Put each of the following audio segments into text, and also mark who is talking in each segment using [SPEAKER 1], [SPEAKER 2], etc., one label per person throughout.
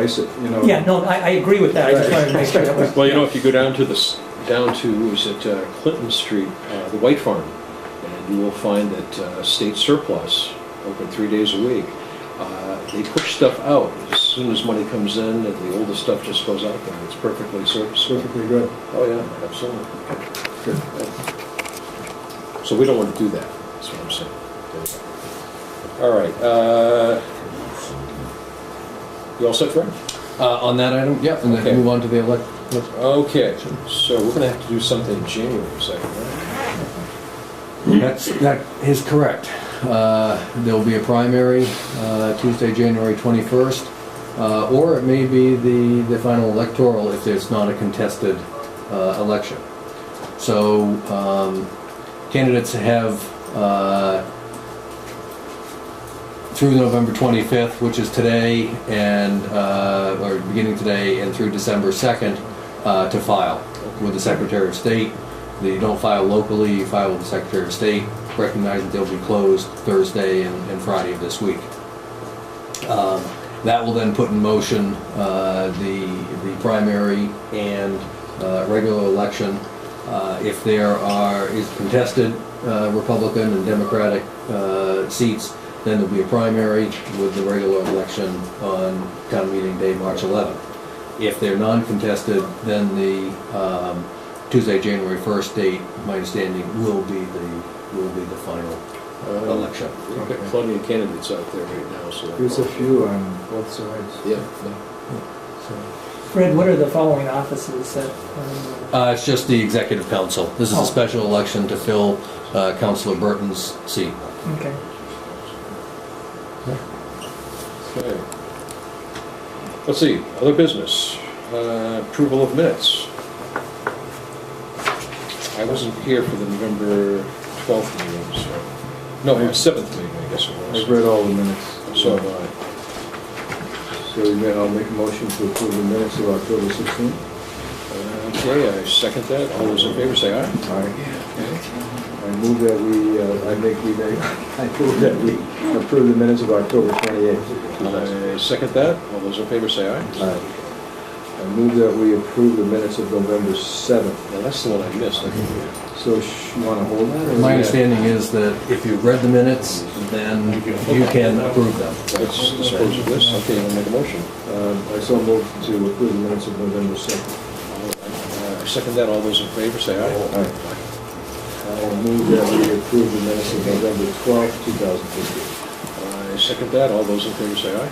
[SPEAKER 1] price it, you know.
[SPEAKER 2] Yeah, no, I, I agree with that, I just wanted to make sure that was.
[SPEAKER 3] Well, you know, if you go down to this, down to, is it uh, Clinton Street, uh, the White Farm, and you will find that uh, State Surplus, open three days a week, uh, they push stuff out as soon as money comes in, and the oldest stuff just goes out there. It's perfectly serviceable.
[SPEAKER 1] Perfectly good.
[SPEAKER 3] Oh, yeah, absolutely.
[SPEAKER 1] Good.
[SPEAKER 3] So we don't want to do that, that's what I'm saying. All right. uh, You all set, Fred?
[SPEAKER 4] Uh, on that item, yeah, and
[SPEAKER 3] Okay.
[SPEAKER 4] then move on to the elect.
[SPEAKER 3] Okay, so we're going to have to do something in January second, right?
[SPEAKER 4] That's, that is correct. Uh, There'll be a primary uh, Tuesday, January 21st, uh, or it may be the, the final electoral if it's not a contested uh, election. So um, candidates have, uh, through November 25th, which is today, and, uh, or beginning today, and through December 2nd, uh, to file with the Secretary of State. That you don't file locally, you file with the Secretary of State, recognize that they'll be closed Thursday and and Friday of this week. Um, That will then put in motion uh, the, the primary and uh, regular election. Uh, If there are, is contested uh, Republican and Democratic uh, seats, then there'll be a primary with the regular election on town meeting day, March 11th. If they're non-contested, then the um, Tuesday, January 1st date, my understanding, will be the, will be the final
[SPEAKER 3] Uh,
[SPEAKER 4] election.
[SPEAKER 3] We've got plenty of candidates out there right now, so.
[SPEAKER 1] There's a few on both sides.
[SPEAKER 3] Yeah, yeah.
[SPEAKER 4] So-
[SPEAKER 2] Fred, what are the following offices that, um,
[SPEAKER 4] Uh, it's just the executive council. This is
[SPEAKER 2] Oh.
[SPEAKER 4] a special election to fill uh, Councilor Burton's seat.
[SPEAKER 2] um, okay.
[SPEAKER 3] Okay. Let's see, other business, Uh, approval of minutes. I wasn't here for the November 12th meeting, so, no,
[SPEAKER 1] I-
[SPEAKER 3] 7th meeting, I guess it
[SPEAKER 1] I've
[SPEAKER 3] was.
[SPEAKER 1] read all the minutes.
[SPEAKER 3] So,
[SPEAKER 1] So,
[SPEAKER 3] uh,
[SPEAKER 1] so may I'll make a motion to approve the minutes of October sixteenth.
[SPEAKER 3] uh, okay, I second that, all those in favor say aye.
[SPEAKER 1] I, I move that we, uh, I make, we make, I move that we approve the minutes of October twenty-eighth.
[SPEAKER 3] I second that, all those in favor say aye.
[SPEAKER 1] I move that we approve the minutes of November seventh.
[SPEAKER 3] Now, that's the one I missed, I think.
[SPEAKER 1] So sh- you wanna hold that? or-
[SPEAKER 4] My understanding is that if you've read the minutes, then you can approve them.
[SPEAKER 3] Let's dispose of this, okay, I'll make a motion.
[SPEAKER 1] Um, I so move to approve the minutes of November seventh.
[SPEAKER 3] Uh, Second that, all those in favor, say aye.
[SPEAKER 1] Aye. I'll move that we approve the minutes of November twelfth, two thousand fifteen.
[SPEAKER 3] I second that, all those in favor, say aye.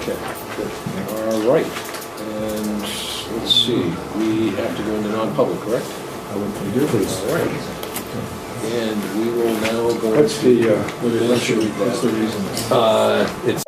[SPEAKER 3] Okay, good. all right, and let's see, we have to go into non-public, correct?
[SPEAKER 1] I would, you do please.
[SPEAKER 3] All right. And we will now go.
[SPEAKER 1] What's the, uh, what
[SPEAKER 3] Why
[SPEAKER 1] is,
[SPEAKER 3] don't you read
[SPEAKER 1] what's the
[SPEAKER 3] that?
[SPEAKER 1] reason?
[SPEAKER 4] Uh, It's